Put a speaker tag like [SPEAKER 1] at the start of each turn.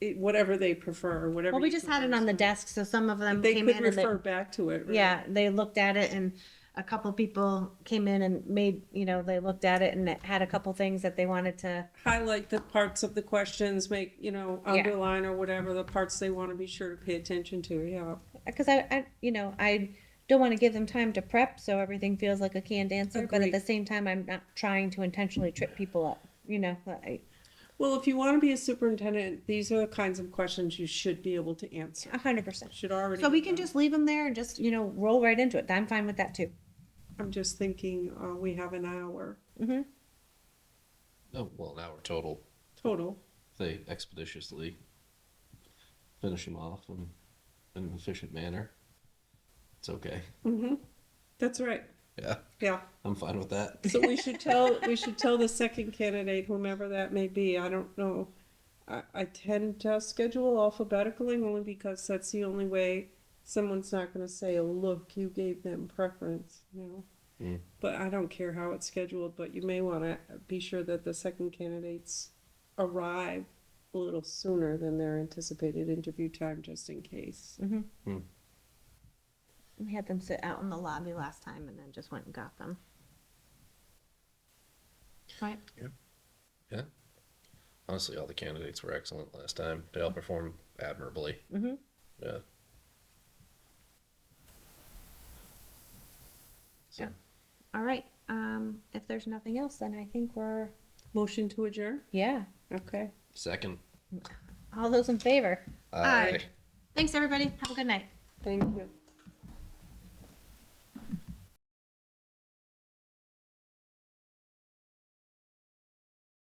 [SPEAKER 1] it- whatever they prefer, whatever.
[SPEAKER 2] Well, we
[SPEAKER 1] you
[SPEAKER 2] just had it
[SPEAKER 1] prefer.
[SPEAKER 2] on the desk, so some of them
[SPEAKER 1] They
[SPEAKER 2] came
[SPEAKER 1] could
[SPEAKER 2] in and they,
[SPEAKER 1] refer back to it. right?
[SPEAKER 2] yeah, they looked at it and a couple people came in and made, you know, they looked at it and it had a couple things that they wanted to,
[SPEAKER 1] Highlight the parts of the questions, make, you know,
[SPEAKER 2] Yeah.
[SPEAKER 1] underline or whatever, the parts they want to be sure to pay attention to, yeah.
[SPEAKER 2] because I, I, you know, I don't want to give them time to prep, so everything feels like a canned answer, but at
[SPEAKER 1] Agreed.
[SPEAKER 2] the same time, I'm not trying to intentionally trip people up, you know, but I,
[SPEAKER 1] Well, if you want to be a superintendent, these are the kinds of questions you should be able to answer.
[SPEAKER 2] a hundred percent.
[SPEAKER 1] Should already.
[SPEAKER 2] So we
[SPEAKER 1] be
[SPEAKER 2] can
[SPEAKER 1] done.
[SPEAKER 2] just leave them there and just, you know, roll right into it. I'm fine with that too.
[SPEAKER 1] I'm just thinking, uh, we have an hour
[SPEAKER 3] Oh, well, an hour total.
[SPEAKER 1] total.
[SPEAKER 3] If They expeditiously finish them off in, in an efficient manner. It's okay.
[SPEAKER 1] That's right,
[SPEAKER 3] Yeah,
[SPEAKER 1] yeah.
[SPEAKER 3] I'm fine with that.
[SPEAKER 1] So we should tell, we should tell the second candidate, whomever that may be, I don't know. I, I tend to schedule alphabetically only because that's the only way someone's not gonna say, oh, look, you gave them preference, you know?
[SPEAKER 3] Mm.
[SPEAKER 1] But I don't care how it's scheduled, but you may wanna be sure that the second candidates arrive a little sooner than their anticipated interview time, just in case.
[SPEAKER 2] We had them sit out in the lobby last time and then just went and got them. Right?
[SPEAKER 3] Yeah. Honestly, all the candidates were excellent last time. They all performed admirably.
[SPEAKER 2] Mm-hmm.
[SPEAKER 3] Yeah. So,
[SPEAKER 2] Yeah. All right. Um, if there's nothing else, then I think we're,
[SPEAKER 1] Motion to adjourn?
[SPEAKER 2] yeah.
[SPEAKER 1] Okay.
[SPEAKER 3] second.
[SPEAKER 2] All those in favor?
[SPEAKER 3] Aye.
[SPEAKER 2] Thanks, everybody. Have a good night.
[SPEAKER 1] Thank you.